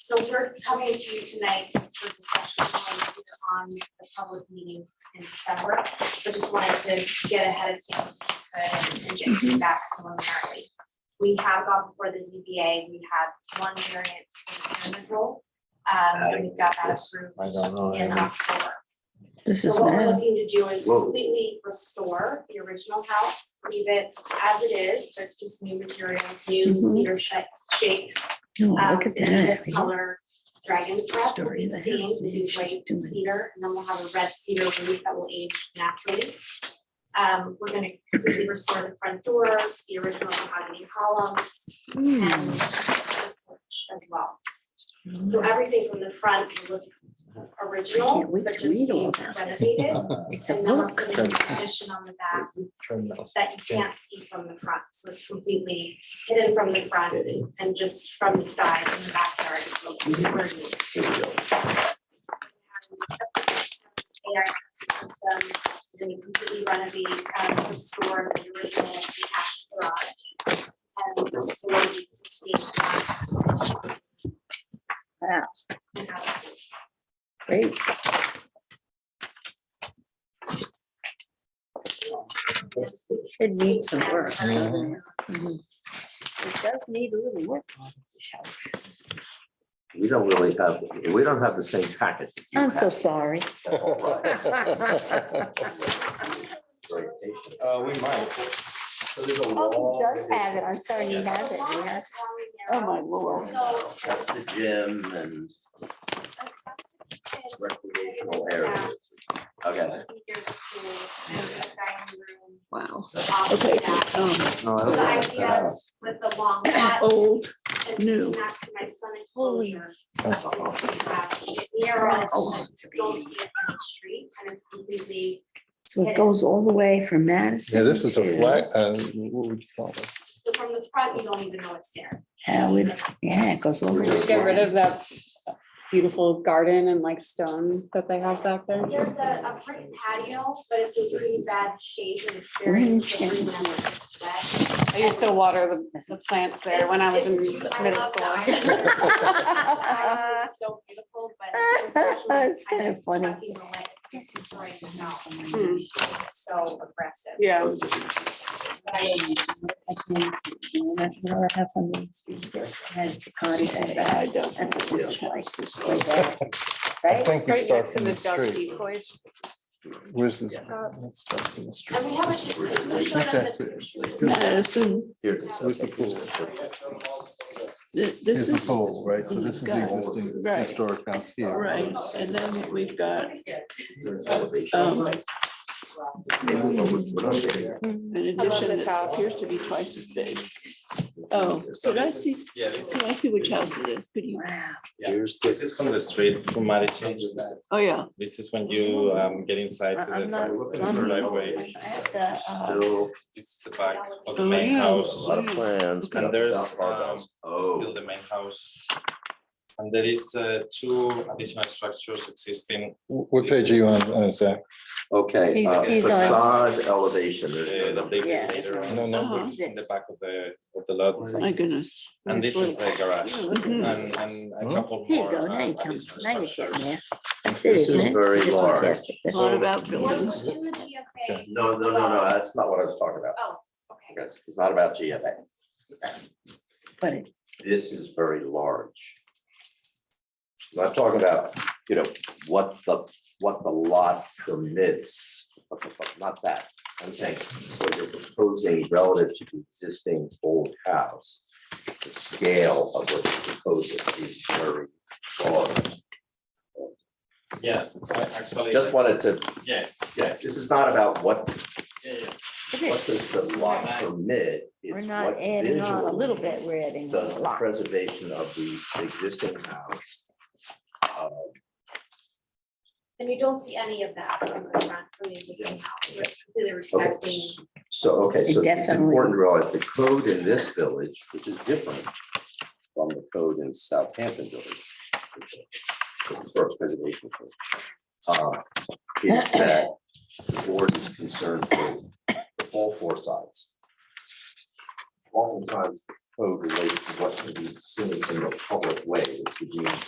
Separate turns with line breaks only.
So we're coming to you tonight just for discussion points on the public meetings in December. So just wanted to get ahead of things if we could, and
Mm-hmm.
get feedback preliminarily. We have gone before the ZBA, we have one variance in the role. Um, and we've got that
Yes,
approved
I don't know.
in October.
This is
So what we're
bad.
looking to do is
Whoa.
completely restore the original house, leave it as it is, but just new materials, new
Mhm.
cedar sha- shakes.
No,
Um,
look at
in
that.
This color dragon's breath will
Story
be
of the
seen,
house,
will
maybe
be
she's
white
doing-
cedar, and then we'll have a red cedar roof that will age naturally. Um, we're gonna completely restore the front door, the original mahogany columns, and
Hmm. Mm.
the porch as well. So everything from the front will look original,
can't wait
but
to
just
read all
being
about this.
renovated.
It's a
And then we're
book.
putting a condition on the back
Turn those.
that you can't see from the front, so it's completely hidden from the front and just from the side in the backyard. it's a little square. AI system, we're gonna completely renovate, um, restore the original detached garage and restore the existing garage.
Wow.
And have it
Great. It needs some work. doesn't It Mhm. It does need a little work. on this house.
We don't really have, we don't have the same package. that you
I'm so
have.
sorry.
Uh, we might.
So there's a
Oh,
wall.
he does have it. I'm sorry, he
The
has it. He
lawn
has,
is long and
oh
narrow.
my lord.
So.
That's the gym and
it's-
recreational area. Okay.
Here's the pool and the dining room
Wow.
off of
Okay.
that.
um,
No, I
So
don't
the
think
idea
that's-
with the long lot
Old.
and
new.
to maximize sun
Holy.
exposure. is we have Narrow, don't see it from the street and it's completely,
So it goes all the way from Madison.
Yeah, this is a
to
flat, uh, what would you call it?
so from the front, you don't even know it's there.
Howard. Yeah, it goes all the way.
Just get rid of that beautiful garden and like stone that they have back there.
There's a, a brick patio, but it's in pretty bad shape and it's very silly when it's wet.
I used to water the, the plants there when I was in
It's- it's- I
middle
love the
school.
island. The island is So beautiful, but. unfortunately,
It's kinda
it's
funny.
sucking the life- This is right now,
Hmm.
so aggressive.
Yeah,
But I-
I
I think we
right
start
next to
from
the
the
duck
street.
deep voice.
Where's this?
Yeah.
Let's start from the street.
And we have a. we showed them
That's
the-
Madison,
Here.
Where's the pool?
th-
Here's
this
the
is,
pool, right? So this is the
Got it.
existing
Right.
historic house here.
right, and then we've got,
There's elevation.
um, an
Maybe what we- what I'm getting-
addition
this
that
house.
appears to be twice as big. Oh, could I see, could I see which house it is? Could you,
Here's
This
the.
is from the street, from Madison.
oh, yeah.
This is when you um get inside to
I'm not-
the
Looking
I'm
for
not-
elevation.
I have the, uh,
Still
this is the back of
Oh,
the main
yeah.
a
house.
lot of plans. but
And there's um still
Oh.
the main house. And there is uh two additional structures existing.
Wh- What page are you on, uh, Zach?
Okay,
He's-
uh,
he's on-
facade elevation,
uh,
there's no
That
number.
they
Yeah.
did later
No,
on.
no.
Uh-huh.
It's in the back of the of the lot.
My goodness.
And this is the garage.
Mhm.
And and a
Hmm?
couple
Here you
more
go, now
uh,
you come,
additional
now you're getting
structures.
there. That's it,
This
isn't
is
it?
very
Just wanna guess.
large.
That's
So-
all about
Well,
buildings.
in the GFA.
No, no, no, no, that's not what I was talking about.
Oh, okay.
It's it's not about GFA.
But it-
this is very large. I'm not talking about, you know, what the, what the lot permits, but- but- but not that. I'm saying what you're proposing relative to the existing old house, the scale of what you're proposing is very large.
Yeah, I actually.
Just wanted to,
Yeah,
yeah, this is not about what,
yeah, yeah.
what does the lot permit,
We're
it's
not
what
adding on a little
visually
bit, we're adding
does
a
the
lot.
preservation of the existing house. uh,
And you don't see any of that from the front, from the existing house, you're completely respecting.
Okay, So, okay, so it's
Definitely.
important to realize the code in this village, which is different from the code in Southampton Village. which is the historic preservation code, uh, Is that the board is concerned with all four sides. Oftentimes, code relates to what can be seen in the public way, which would mean